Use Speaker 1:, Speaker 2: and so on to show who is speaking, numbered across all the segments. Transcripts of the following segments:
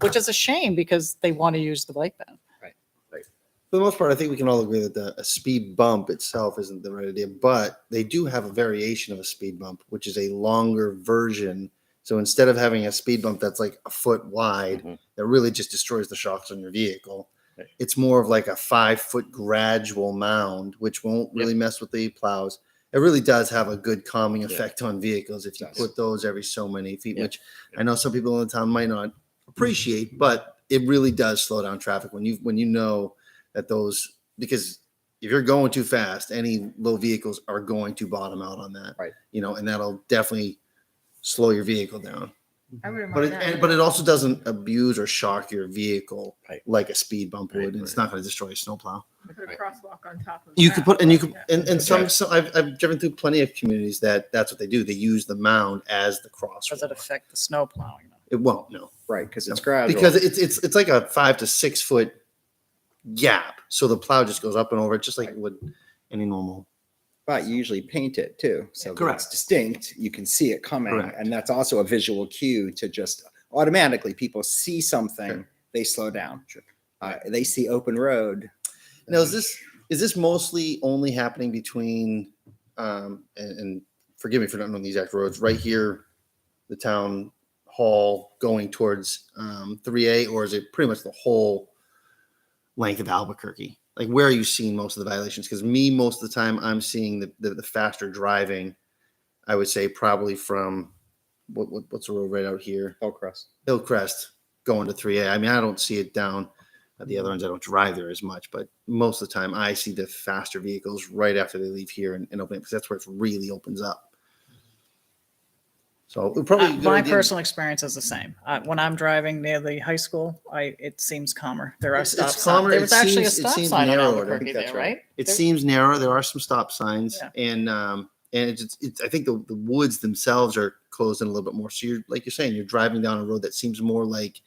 Speaker 1: which is a shame because they want to use the bike path.
Speaker 2: for the most part, I think we can all agree that the, a speed bump itself isn't the right idea, but they do have a variation of a speed bump, which is a longer version. So instead of having a speed bump that's like a foot wide,
Speaker 3: Mhm.
Speaker 2: that really just destroys the shocks on your vehicle, it's more of like a five foot gradual mound, which won't really mess with the plows. It really does have a good calming
Speaker 3: Yeah.
Speaker 2: effect on vehicles if you
Speaker 3: Does.
Speaker 2: put those every so many feet,
Speaker 3: Yeah.
Speaker 2: which I know some people in the town might not appreciate, but it really does slow down traffic when you when you know that those because if you're going too fast, any low vehicles are going to bottom out on that.
Speaker 3: Right.
Speaker 2: You know, and that'll definitely slow your vehicle down.
Speaker 4: I wouldn't
Speaker 2: But it,
Speaker 4: mind
Speaker 2: and,
Speaker 4: that.
Speaker 2: but it also doesn't abuse or shock your vehicle
Speaker 3: Right.
Speaker 2: like a speed bump would.
Speaker 3: Right,
Speaker 2: and It's not going to destroy a snowplow.
Speaker 4: Put a crosswalk on top of.
Speaker 2: You
Speaker 4: that.
Speaker 2: could put and you could
Speaker 4: Yeah.
Speaker 2: and, and some,
Speaker 3: Right.
Speaker 2: some I've, I've driven through plenty of communities that that's what they do. They use the mound as the cross.
Speaker 1: Does it affect the snow plowing?
Speaker 2: It won't no.
Speaker 3: Right, because it's
Speaker 2: No,
Speaker 3: gradual.
Speaker 2: because it's it's it's like a five to six foot gap. So the plow just goes up and over it, just like it would any normal.
Speaker 3: but you usually paint it too, so that it's
Speaker 2: Correct.
Speaker 3: distinct. You can see it coming,
Speaker 2: Correct.
Speaker 3: and that's also a visual cue to just automatically people see something,
Speaker 2: Sure.
Speaker 3: they slow down. Uh, they see open road.
Speaker 2: Now is this is this mostly only happening between um and, and forgive me for not knowing the exact roads right here, the town hall going towards um 3A, or is it pretty much the whole length of Albuquerque? Like where are you seeing most of the violations? Because me, most of the time, I'm seeing the, the the faster driving. I would say probably from what, what what's the road right out here?
Speaker 3: Hillcrest.
Speaker 2: Hillcrest going to 3A. I mean, I don't see it down at the other ones. I don't drive there as much, but most of the time I see the faster vehicles right after they leave here and, and open it because that's where it really opens up. So it probably
Speaker 1: Uh,
Speaker 2: a good
Speaker 1: My
Speaker 2: idea-
Speaker 1: personal experience is the same. Uh, when I'm driving near the high school, I, it seems calmer. There are
Speaker 2: It's-
Speaker 1: stop
Speaker 2: it's
Speaker 1: signs.
Speaker 2: calmer.
Speaker 1: There
Speaker 2: It
Speaker 1: was actually a
Speaker 2: seems- it
Speaker 1: stop
Speaker 2: seems
Speaker 1: sign on
Speaker 2: narrower. I
Speaker 1: Albuquerque
Speaker 3: think that's
Speaker 1: there,
Speaker 3: right.
Speaker 1: right?
Speaker 2: It
Speaker 1: There-
Speaker 2: seems narrow. There are some stop signs,
Speaker 1: Yeah.
Speaker 2: and um, and it's, it's I think the, the woods themselves are closed in a little bit more. So you're like you're saying, you're driving down a road that seems more like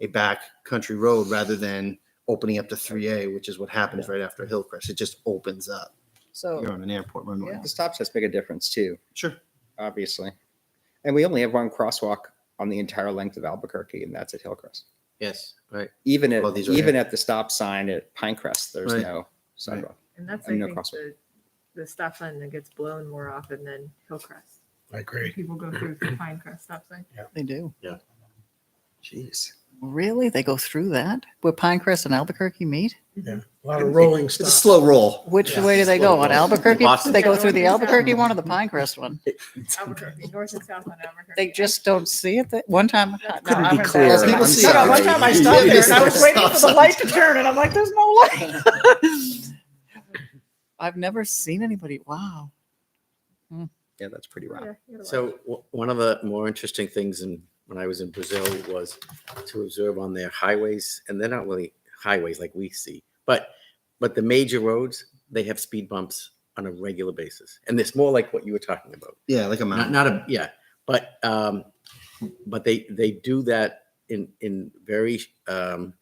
Speaker 2: a back country road rather than opening up to 3A, which is what happens right after Hillcrest. It just opens up. You're
Speaker 1: So,
Speaker 2: on an airport runway.
Speaker 1: Oh. Yeah.
Speaker 3: The stop signs make a difference too,
Speaker 2: Sure.
Speaker 3: obviously, and we only have one crosswalk on the entire length of Albuquerque, and that's at Hillcrest.
Speaker 2: Yes. Right.
Speaker 3: Even at
Speaker 2: Well, these are-
Speaker 3: even at the stop sign at Pinecrest, there's
Speaker 2: Right.
Speaker 3: no sidewalk.
Speaker 4: And that's, I
Speaker 3: and no
Speaker 4: think,
Speaker 3: crosswalk.
Speaker 4: the, the stop sign that gets blown more often than Hillcrest.
Speaker 5: I agree.
Speaker 4: People go through the Pinecrest stop sign.
Speaker 1: they do.
Speaker 3: Jeez.
Speaker 1: Really? They go through that? Where Pinecrest and Albuquerque meet?
Speaker 5: A lot of rolling
Speaker 2: It's a
Speaker 5: stops.
Speaker 2: slow roll.
Speaker 1: Which
Speaker 5: Yeah.
Speaker 1: way do they go? On
Speaker 2: Well,
Speaker 1: Albuquerque?
Speaker 2: Boston.
Speaker 1: They go through the Albuquerque one or the Pinecrest one?
Speaker 4: Albuquerque, north and south on Albuquerque.
Speaker 1: They just don't see it. That one time, no,
Speaker 4: Couldn't
Speaker 1: I
Speaker 4: be
Speaker 1: was-
Speaker 3: clearer.
Speaker 1: No, no,
Speaker 2: I'm
Speaker 1: one
Speaker 2: sorry.
Speaker 1: time I stopped there and I was waiting for the light to turn, and I'm like, "There's no light." I've never seen anybody. Wow.
Speaker 3: Yeah, that's pretty rough.
Speaker 4: Yeah, you gotta
Speaker 6: So
Speaker 4: watch.
Speaker 6: w- one of the more interesting things in, when I was in Brazil was to observe on their highways, and they're not really highways like we see, but, but the major roads, they have speed bumps on a regular basis. And it's more like what you were talking about.
Speaker 2: Yeah, like a
Speaker 6: Not,
Speaker 2: mountain.
Speaker 6: not a, yeah, but, um, but they, they do that in, in very, um,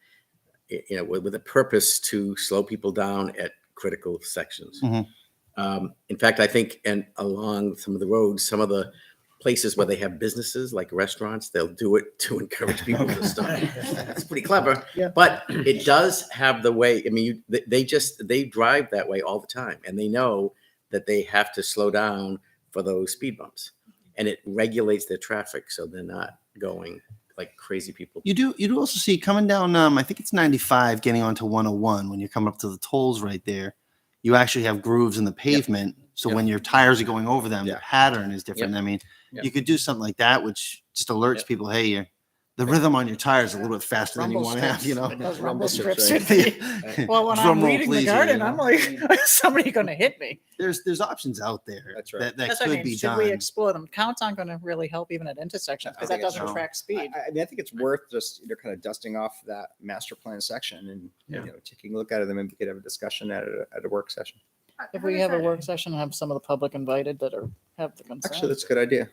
Speaker 6: y- you know, with, with a purpose to slow people down at critical sections.
Speaker 2: Mhm.
Speaker 6: Um, in fact, I think, and along some of the roads, some of the places where they have businesses like restaurants, they'll do it to encourage people to stop. That's pretty clever.
Speaker 2: Yeah.
Speaker 6: But it does have the way, I mean, you, they, they just, they drive that way all the time and they know that they have to slow down for those speed bumps. And it regulates their traffic, so they're not going like crazy people.
Speaker 2: You do you do also see coming down um I think it's 95 getting onto 101 when you're coming up to the tolls right there. You actually have grooves in the pavement. So
Speaker 6: Yep.
Speaker 2: when your tires are going over them,
Speaker 6: Yeah.
Speaker 2: the pattern is different. I mean,
Speaker 6: Yep.
Speaker 2: you could do something like that, which just alerts
Speaker 6: Yep.
Speaker 2: people, hey, you're, the rhythm on your tire is a little bit faster than you
Speaker 1: Rumble
Speaker 2: want to have,
Speaker 1: strips.
Speaker 2: you know.
Speaker 1: Those
Speaker 3: Rumble
Speaker 1: rumble
Speaker 3: strips,
Speaker 1: strips.
Speaker 3: right.
Speaker 1: should be- Well, when
Speaker 2: Drum
Speaker 1: I'm
Speaker 2: roll,
Speaker 1: reading
Speaker 2: please,
Speaker 1: the
Speaker 2: you
Speaker 1: garden,
Speaker 2: know?
Speaker 1: I'm like, somebody going to hit me.
Speaker 2: There's there's options out there
Speaker 3: That's right.
Speaker 2: that, that
Speaker 1: That's what
Speaker 2: could
Speaker 1: I mean.
Speaker 2: be
Speaker 1: Should
Speaker 2: done.
Speaker 1: we explore them? Counts aren't going to really help even at intersections because
Speaker 3: I
Speaker 1: that
Speaker 3: think it's
Speaker 1: doesn't
Speaker 2: no.
Speaker 1: track
Speaker 3: I,
Speaker 1: speed.
Speaker 3: I- I mean, I think it's worth just, you know, kind of dusting off that master plan section and, you know, taking a look at it and then we could have a discussion at a, at a work session.
Speaker 4: How-
Speaker 1: If
Speaker 4: how
Speaker 1: we
Speaker 4: does
Speaker 1: have a
Speaker 4: that-
Speaker 1: work session, and have some of the public invited that are have the
Speaker 3: Actually,
Speaker 1: concern.
Speaker 3: that's a good idea.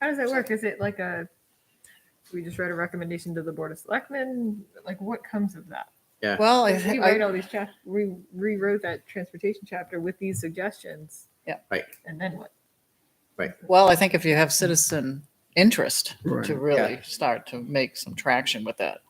Speaker 4: How does that work? Is it like a, we just write a recommendation to the Board of Selectmen? Like what comes of that?
Speaker 1: Well, I,
Speaker 4: We
Speaker 1: I-
Speaker 4: write all these chap, we rewrote that transportation chapter with these suggestions.
Speaker 1: Yeah.
Speaker 6: Right.
Speaker 4: And then what?
Speaker 1: Well, I think if you have citizen interest
Speaker 5: Right.
Speaker 1: to really start to make some traction with that.